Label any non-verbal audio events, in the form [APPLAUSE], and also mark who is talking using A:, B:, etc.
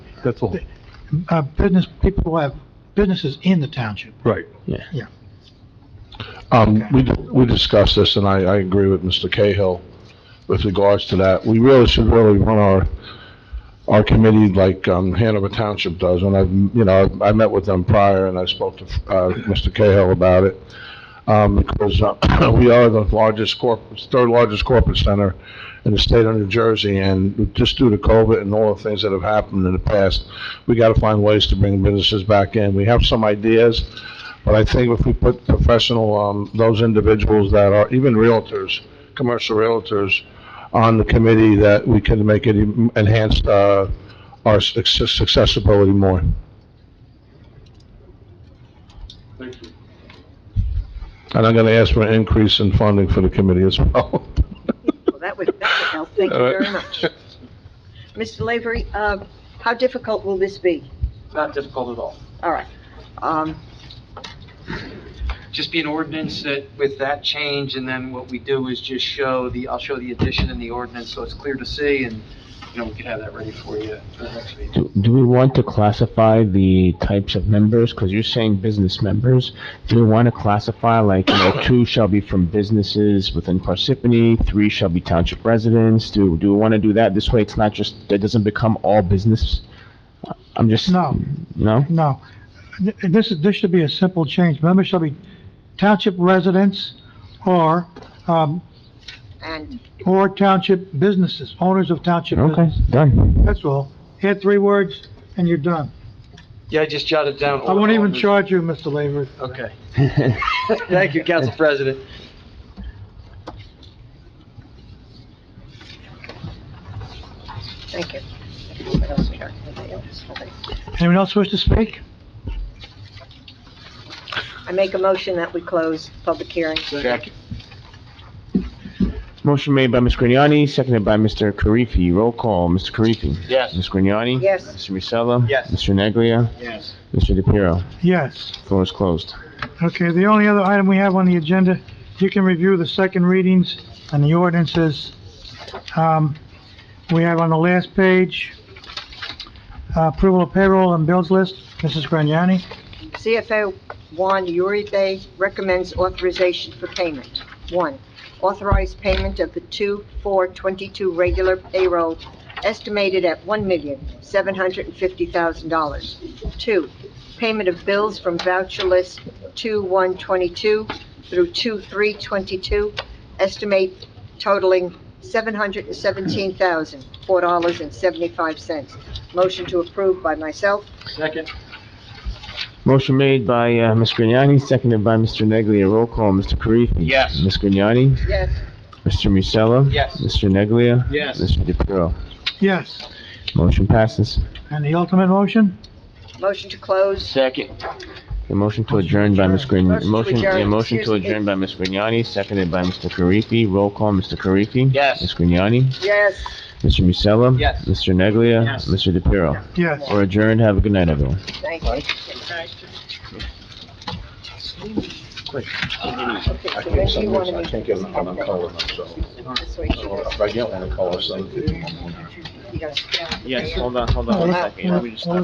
A: That's all.
B: Uh, business, people have businesses in the township.
A: Right.
C: Um, we, we discussed this, and I, I agree with Mr. Cahill with regards to that. We really should really run our, our committee like, um, Hanover Township does, and I've, you know, I I met with them prior, and I spoke to, uh, Mr. Cahill about it, um, because, uh, [CLEARS THROAT] we are the largest corp, third largest corporate center in the state of New Jersey, and just due to COVID and all the things that have happened in the past, we gotta find ways to bring businesses back in. We have some ideas, but I think if we put professional, um, those individuals that are, even realtors, commercial realtors, on the committee, that we can make it en- enhance, uh, our success- accessibility more. And I'm gonna ask for an increase in funding for the committee as [LAUGHS] well.
D: Well, that would, that would help, thank you very much. Mr. Lavery, uh, how difficult will this be?
E: Not difficult at all.
D: All right. Um,
E: Just be an ordinance that with that change, and then what we do is just show the, I'll show the addition in the ordinance, so it's clear to see, and, you know, we can have that ready for you for the next meeting.
F: Do, do we want to classify the types of members? Because you're saying business members. Do we want to classify, like, you know, two shall be from businesses within Parsippany, three shall be township residents? Do, do we want to do that? This way, it's not just, it doesn't become all business? I'm just.
B: No.
F: No?
B: No, Th- this, is- this should be a simple change. Members shall be township residents or, um,
D: and
B: or township businesses, owners of township
F: Okay,
B: business. [LAUGHS]
F: done.
B: That's all. Add three words and you're done.
E: Yeah, I just jotted down.
B: I won't even charge you, Mr. Lavery.
E: Okay. Thank you, Council President.
D: Thank you. What else we got? Anybody else? Nobody.
B: Anyone else wish to speak?
D: I make a motion that we close public hearing.
F: Motion made by Ms. Grignani, seconded by Mr. Karifi. Roll call, Mr. Karifi.
E: Yes.
F: Ms. Grignani?
D: Yes.
F: Mr. Musella?
E: Yes.
F: Mr. Neglia?
E: Yes.
F: Mr. DePiero?
B: Yes.
F: Floor is closed.
B: Okay, the only other item we have on the agenda, you can review the second readings and the ordinances. Um, we have on the last page, uh, approval of payroll and bills list, Mrs. Grignani.
D: CFO Juan Uribe recommends authorization for payment. One, authorize payment of the two, four, twenty-two regular payroll estimated at one million, seven hundred and fifty thousand dollars. Two, payment of bills from voucher list two, one, twenty-two through two, three, twenty-two, estimate totaling seven hundred and seventeen thousand, four dollars and seventy-five cents. Motion to approve by myself.
E: Second.
F: Motion made by uh, Ms. Grignani, seconded by Mr. Neglia. Roll call, Mr. Karifi.
E: Yes.
F: Ms. Grignani?
D: Yes.
F: Mr. Musella?
E: Yes.
F: Mr. Neglia?
E: Yes.
F: Mr. DePiero?
B: Yes.
F: Motion passes.
B: And the ultimate motion?
D: Motion to close.
E: Second.
F: A motion to adjourn by Ms.
D: Motion
F: Grignani.
D: to
F: Motion, yeah,
D: adjourn.
F: motion to
D: Excuse me.
F: adjourn by Ms. Grignani, seconded by Mr. Karifi. Roll call, Mr. Karifi.
E: Yes.
F: Ms. Grignani?
D: Yes.
F: Mr. Musella?
E: Yes.
F: Mr. Neglia?
E: Yes.
F: Mr. DePiero?
B: Yes.
F: We're adjourned. Have a good night, everyone.
D: Thank you. Okay, so when do you want to
C: I
D: meet?
C: can't get an- on a color, so,
D: This way, you
C: if I get one, a color, so.
D: you gotta-
F: Yes, hold on, hold
B: on one second.